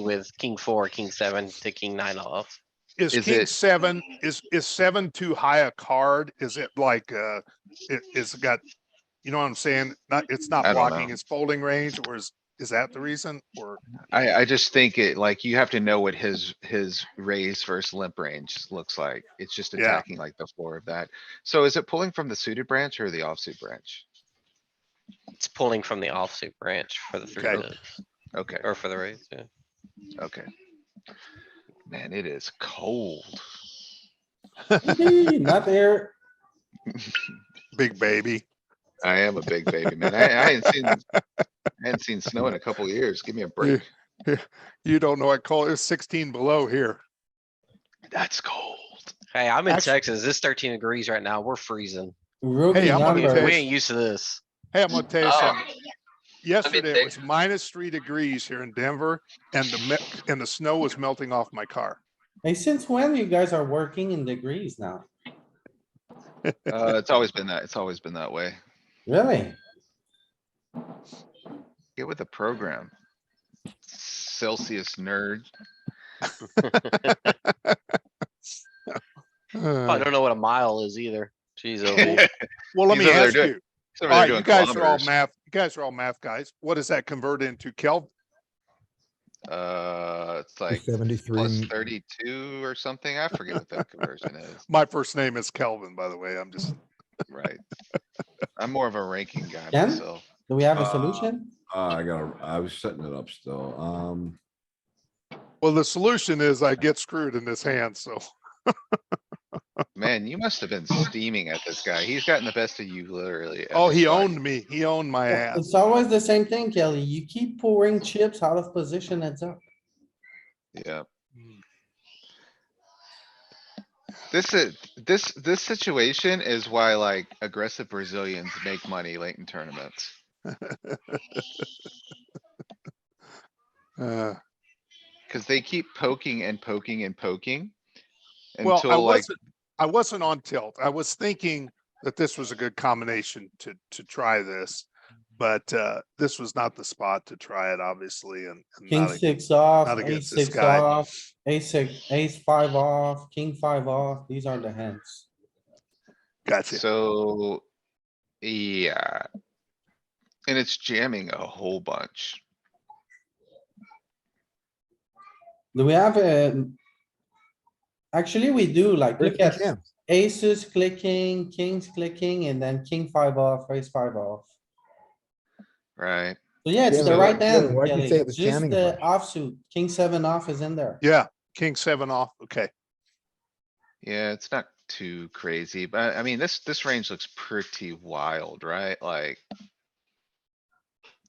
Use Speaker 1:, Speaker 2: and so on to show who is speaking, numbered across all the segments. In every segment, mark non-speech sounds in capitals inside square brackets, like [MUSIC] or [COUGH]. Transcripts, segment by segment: Speaker 1: with king four, king seven to king nine off.
Speaker 2: Is
Speaker 3: Is
Speaker 2: king
Speaker 3: it-
Speaker 2: seven, is, is seven too high a card? Is it like, uh, it, it's got, you know what I'm saying? Not, it's not
Speaker 3: I don't
Speaker 2: blocking
Speaker 3: know.
Speaker 2: his folding range or is, is that the reason? Or,
Speaker 3: I, I just think it, like, you have to know what his, his raise versus limp range looks like. It's just
Speaker 2: Yeah.
Speaker 3: attacking like the floor of that. So is it pulling from the suited branch or the offsuit branch?
Speaker 1: It's pulling from the offsuit branch for the three
Speaker 2: Okay.
Speaker 1: bigs,
Speaker 3: Okay,
Speaker 1: or for the raise, yeah.
Speaker 3: okay. Man, it is cold.
Speaker 4: Not there.
Speaker 2: big baby,
Speaker 3: I am a big baby, man. I, I hadn't seen, I hadn't seen snow in a couple years. Give me
Speaker 2: [LAUGHS]
Speaker 3: a break.
Speaker 2: you don't know what color, it's sixteen below here.
Speaker 3: That's cold.
Speaker 1: Hey, I'm in
Speaker 2: Actu-
Speaker 1: Texas. It's thirteen degrees right now. We're freezing.
Speaker 4: Rookie
Speaker 2: Hey, I'm on
Speaker 1: We
Speaker 2: the
Speaker 4: numbers.
Speaker 2: test.
Speaker 1: we ain't used to this.
Speaker 2: Hey, I'm gonna tell you
Speaker 3: Oh.
Speaker 2: something. Yesterday
Speaker 3: tell
Speaker 2: it
Speaker 3: you-
Speaker 2: was minus three degrees here in Denver and the, me- and the snow was melting off my car.
Speaker 4: Hey, since when you guys are working in degrees now?
Speaker 3: Uh, it's always been that, it's always been that way.
Speaker 4: Really?
Speaker 3: Get with the program. Celsius nerd. [LAUGHS]
Speaker 1: I
Speaker 2: Uh,
Speaker 1: don't know what a mile is either. Jeez, oh,
Speaker 2: [SIGHS] Well, let
Speaker 3: He's
Speaker 2: me
Speaker 3: over there
Speaker 2: ask
Speaker 3: doing-
Speaker 2: you,
Speaker 3: He's over there
Speaker 2: alright,
Speaker 3: doing
Speaker 2: you guys are all
Speaker 3: kilometers.
Speaker 2: math, you guys are all math guys. What does that convert into Kelvin?
Speaker 3: Uh, it's like plus
Speaker 5: Seventy-three,
Speaker 3: thirty-two or something. I forget what that conversion is,
Speaker 2: My first name is Kelvin, by the way. I'm just,
Speaker 3: right? I'm more of a ranking guy
Speaker 4: Ken?
Speaker 3: myself.
Speaker 4: Do we have a
Speaker 6: Uh,
Speaker 4: solution?
Speaker 6: Uh, I gotta, I was setting it up still, um,
Speaker 2: well, the solution is I get screwed in this hand, so.
Speaker 3: Man, you must have been steaming at this guy. He's gotten the best of you literally.
Speaker 2: Oh, he
Speaker 3: every time.
Speaker 2: owned me. He owned my ass.
Speaker 4: It's always the same thing, Kelly. You keep pouring chips out of position, it's up.
Speaker 3: Yeah.
Speaker 2: Mm.
Speaker 3: This is, this, this situation is why like aggressive Brazilians make money late in tournaments.
Speaker 2: Uh,
Speaker 3: Cause they keep poking and poking and poking.
Speaker 2: Well, I
Speaker 3: Until like,
Speaker 2: wasn't, I wasn't on tilt. I was thinking that this was a good combination to, to try this. But, uh, this was not the spot to try it, obviously, and. and
Speaker 4: King
Speaker 2: not a-
Speaker 4: six off,
Speaker 2: not
Speaker 4: ace
Speaker 2: against this
Speaker 4: six
Speaker 2: guy.
Speaker 4: off, ace six, ace five off, king five off. These are the hands.
Speaker 2: Gotcha.
Speaker 3: so, yeah. And it's jamming a whole bunch.
Speaker 4: Do we have a? Actually, we do like, look at
Speaker 5: jam.
Speaker 4: aces clicking, kings clicking, and then king five off, ace five off.
Speaker 3: Right,
Speaker 4: So yeah, it's
Speaker 5: Yeah,
Speaker 4: the
Speaker 5: but-
Speaker 4: right
Speaker 5: yeah,
Speaker 4: hand,
Speaker 5: but why'd you
Speaker 4: Kelly.
Speaker 5: say it was
Speaker 4: Just
Speaker 5: jamming
Speaker 4: the
Speaker 5: first?
Speaker 4: offsuit, king seven off is in there.
Speaker 2: Yeah, king seven off. Okay.
Speaker 3: yeah, it's not too crazy, but I mean, this, this range looks pretty wild, right? Like.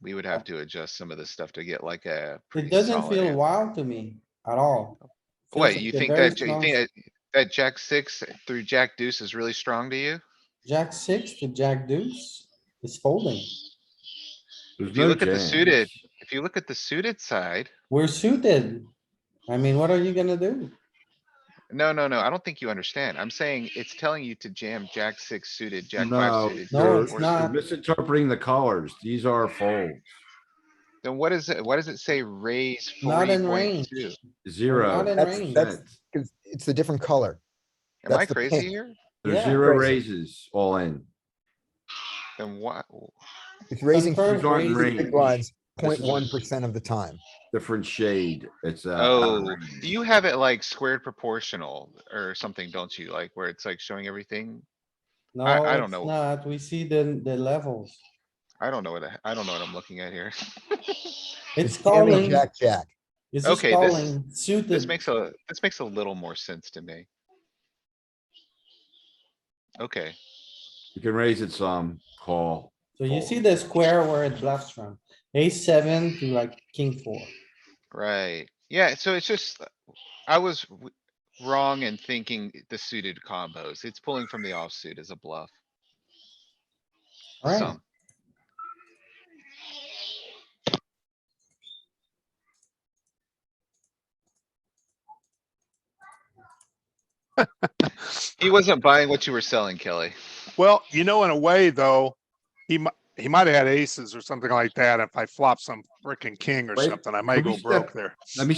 Speaker 3: We would have to adjust some of this stuff to get like a.
Speaker 4: It
Speaker 3: pretty
Speaker 4: doesn't
Speaker 3: solid
Speaker 4: feel
Speaker 3: hand.
Speaker 4: wild to me at all. Feels
Speaker 3: Wait,
Speaker 4: like
Speaker 3: you
Speaker 4: a
Speaker 3: think
Speaker 4: very
Speaker 3: that, you
Speaker 4: strong
Speaker 3: think that, that jack six through jack deuce is really strong to you?
Speaker 4: Jack six to jack deuce is folding.
Speaker 6: there's
Speaker 3: you
Speaker 6: no
Speaker 3: look at the
Speaker 6: jams.
Speaker 3: suited- If you look at the suited side,
Speaker 4: We're suited. I mean, what are you gonna do?
Speaker 3: no, no, no, I don't think you understand. I'm saying it's telling you to jam jack six suited, jack
Speaker 6: No,
Speaker 3: five suited.
Speaker 4: No,
Speaker 3: jack
Speaker 6: you're-
Speaker 4: it's
Speaker 3: four
Speaker 4: not.
Speaker 6: you're
Speaker 3: suited.
Speaker 6: Misinterpreting the colors, these are folds,
Speaker 3: Then what is it? Why does it say raise
Speaker 4: Not
Speaker 3: forty
Speaker 4: in range.
Speaker 3: point two?
Speaker 6: zero.
Speaker 4: Not in
Speaker 5: That's-
Speaker 4: range.
Speaker 5: that's- It's it's a different color.
Speaker 3: Am I
Speaker 5: That's the
Speaker 3: crazy
Speaker 5: pink.
Speaker 3: here?
Speaker 6: There's
Speaker 4: Yeah.
Speaker 6: zero
Speaker 5: Crazy.
Speaker 6: raises all in,
Speaker 3: Then why?
Speaker 5: It's raising
Speaker 4: first
Speaker 6: these aren't
Speaker 4: raising-
Speaker 6: range,
Speaker 5: big blinds
Speaker 6: This
Speaker 5: 0.1
Speaker 6: is-
Speaker 5: percent of the time.
Speaker 6: different shade, it's uh. out of
Speaker 3: Oh,
Speaker 6: range.
Speaker 3: do you have it like squared proportional or something, don't you? Like where it's like showing everything?
Speaker 4: No,
Speaker 3: I- I don't
Speaker 4: it's
Speaker 3: know.
Speaker 4: Not, we see the, the levels.
Speaker 3: I don't know what, I I don't know what I'm looking at here. [LAUGHS]
Speaker 4: It's
Speaker 5: jamming
Speaker 4: calling,
Speaker 5: Jack, jack.
Speaker 4: it's just
Speaker 3: Okay, this-
Speaker 4: calling,
Speaker 3: This
Speaker 4: suited.
Speaker 3: makes a, this makes a little more sense to me. Okay,
Speaker 6: You can raise it some, call,
Speaker 4: So you see the square where it bluffs from, ace seven to like king four.
Speaker 3: right. Yeah, so it's just, uh, I was w- wrong in thinking the suited combos. It's pulling from the offsuit as a bluff.
Speaker 4: Alright,
Speaker 3: some. He wasn't buying what you were selling, Kelly.
Speaker 2: Well, you know, in a way though, he might, he might have had aces or something like that. If I flop some frickin' king or
Speaker 6: Wait,
Speaker 2: something, I might
Speaker 6: can we
Speaker 2: go
Speaker 6: step-
Speaker 2: broke there.
Speaker 6: let me